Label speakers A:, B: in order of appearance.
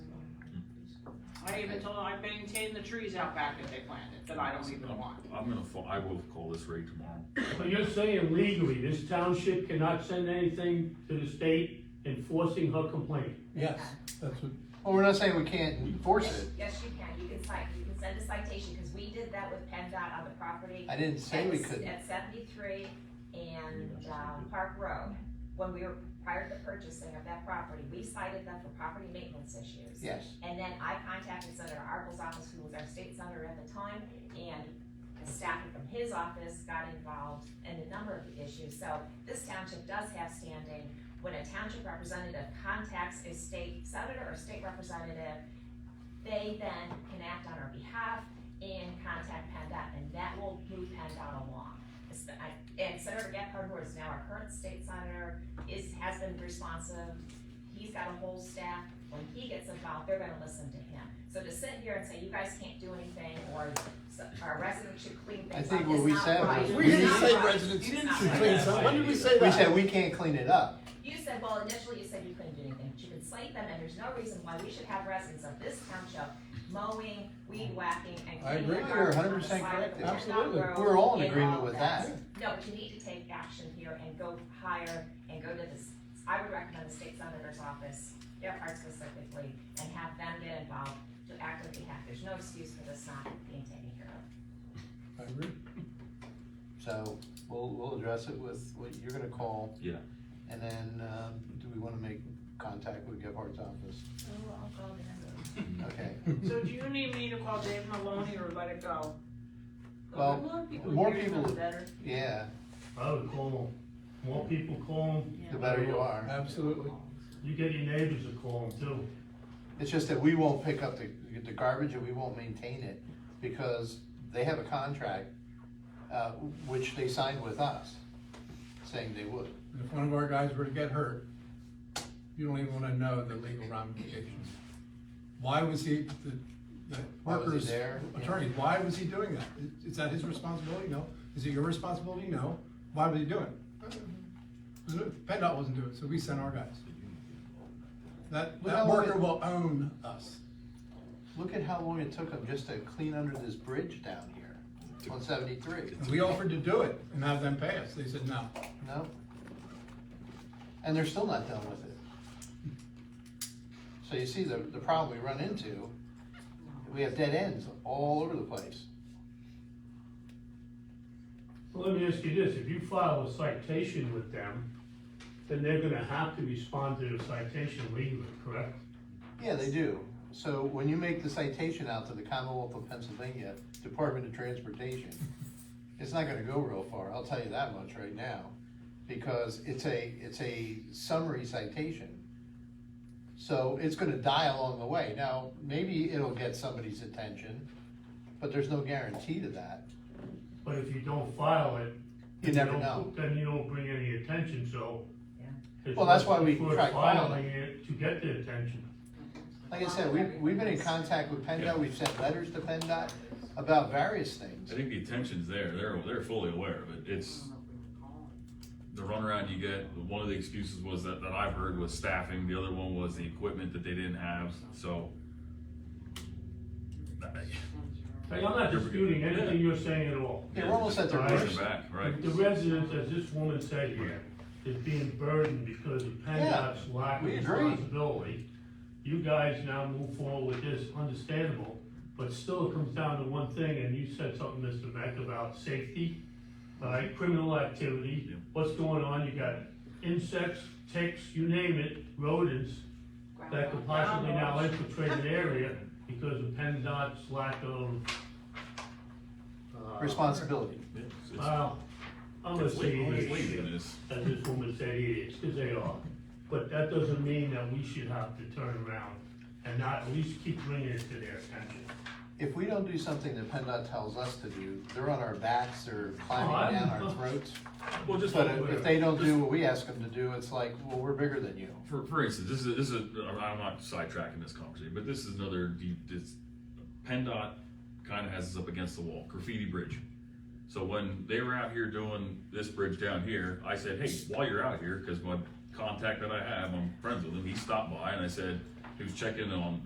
A: I even told them I maintain the trees out back that they planted, that I don't even want.
B: I'm gonna, fo- I will call this rate tomorrow.
C: So you're saying legally, this township cannot send anything to the state enforcing her complaint?
D: Yes, that's what, well, we're not saying we can't enforce
E: Yes,
D: it.
E: yes, you can, you can cite, you can send a citation, because we did that with PennDOT on the property.
D: I didn't say we
E: at-
D: couldn't.
E: At seventy-three and, um, Park Road, when we were, prior to the purchasing of that property, we cited them for property maintenance issues.
D: Yes,
E: And then I contacted Senator Arbel's office, who was our state senator at the time, and the staff from his office got involved in a number of issues. So this township does have standing. When a township representative contacts a state senator or state representative, they then can act on our behalf and contact PennDOT, and that will move PennDOT along. It's the- I- And Senator Gephardt, who is now our current state senator, is, has been responsive. He's got a whole staff when he gets involved, they're gonna listen to him. So to sit here and say, you guys can't do anything, or s- our residents should clean
D: I
E: things up,
D: think what we
E: is
D: said
E: not right.
D: was,
F: We
D: we
F: didn't
D: didn't
F: say
D: say residents
F: residents
E: should
D: should
E: clean
D: clean
F: it up.
D: When did we say that? We said we can't clean it up.
E: You said, well, initially you said you couldn't do anything, but you could slate them, and there's no reason why we should have residents of this township mowing, weed whacking, and
D: I
E: cleaning
D: agree,
E: up
D: you're
E: garbage on
D: 100%
E: the side of
D: correct
E: the
D: there.
E: Woodstock
F: Absolutely.
E: Road
D: We're all in
E: and
D: agreement
E: all
D: with
E: that.
D: that.
E: No, but you need to take action here and go higher and go to this, I would recommend the state senator's office, their part specifically, and have them get involved to act on behalf. There's no excuse for this not being taken care of.
D: I agree. So we'll, we'll address it with what you're gonna call.
B: Yeah.
D: And then, um, do we wanna make contact with Gephardt's office?
E: Oh, I'll go there.
D: Okay,
A: So do you need me to call Dave Maloney or let it go?
D: Well,
A: More people
D: more
A: use them,
D: people-
A: the better.
D: yeah,
C: I would call them, more people call them,
D: the better you are.
A: Oh,
F: Absolutely.
C: you get your neighbors to call them too.
D: It's just that we won't pick up the, the garbage and we won't maintain it because they have a contract, uh, which they signed with us, saying they would.
F: And If one of our guys were to get hurt, you don't even wanna know the legal ramifications. Why was he, the, the
D: Why was he
F: workers,
D: there?
F: attorney, why was he doing that? Is- Is that his responsibility? No. Is it your responsibility? No. Why was he doing it? PennDOT wasn't doing it, so we sent our guys. That,
D: Well,
F: that worker will own us.
D: Look at how long it took them just to clean under this bridge down here on seventy-three.
F: And we offered to do it and have them pay us. They said no.
D: No? And they're still not done with it. So you see the, the problem we run into, we have dead ends all over the place.
C: Well, let me ask you this, if you file a citation with them, then they're gonna have to respond to the citation legally, correct?
D: Yeah, they do. So when you make the citation out to the Commonwealth of Pennsylvania Department of Transportation, it's not gonna go real far, I'll tell you that much right now. Because it's a, it's a summary citation. So it's gonna die along the way. Now, maybe it'll get somebody's attention, but there's no guarantee to that.
C: But if you don't file it.
D: You
C: then
D: never
C: don't-
D: know.
C: Then you don't bring any attention, so.
E: Yeah.
C: it's
D: Well, that's why
C: worth-
D: we
C: it's worth
D: try filing.
C: Filing it to get the attention.
D: Like I said, we've, we've been in contact with PennDOT, we've sent letters to PennDOT about various things.
B: I think the attention's there, they're, they're fully aware of it, it's the runaround you get, one of the excuses was that, that I've heard was staffing, the other one was the equipment that they didn't have, so.
C: Hey, I'm not disputing anything you're saying at all.
D: Yeah, we're almost at the
C: Alright.
B: Pushing
D: worst.
B: back, right?
C: The residents, as this woman said here, is being burdened because of PennDOT's lack of
D: we agree.
C: responsibility. You guys now move forward with this, understandable, but still it comes down to one thing, and you said something, Mr. Beck, about safety, all right, criminal activity,
B: Yeah.
C: what's going on, you got insects, ticks, you name it, rodents that could possibly now infiltrate an area because of PennDOT's lack of. uh,
D: Responsibility.
B: It's- it's-
C: Well, I'm gonna
B: It's
C: say
B: legal, it's legal, it
C: idiots,
B: is.
C: as this woman said, idiots, because they are. But that doesn't mean that we should have to turn around and not at least keep bringing it to their attention.
D: If we don't do something that PennDOT tells us to do, they're on our backs, they're climbing down our throats.
B: Well, Oh, just.
D: But if- if they don't do what we ask them to do, it's like, well, we're bigger than you.
B: For, for instance, this is, this is, I'm not sidetracking this conversation, but this is another, de- this, PennDOT kinda has us up against the wall, graffiti bridge. So when they were out here doing this bridge down here, I said, hey, while you're out here, cause my contact that I have, I'm friends with him, he stopped by and I said, he was checking on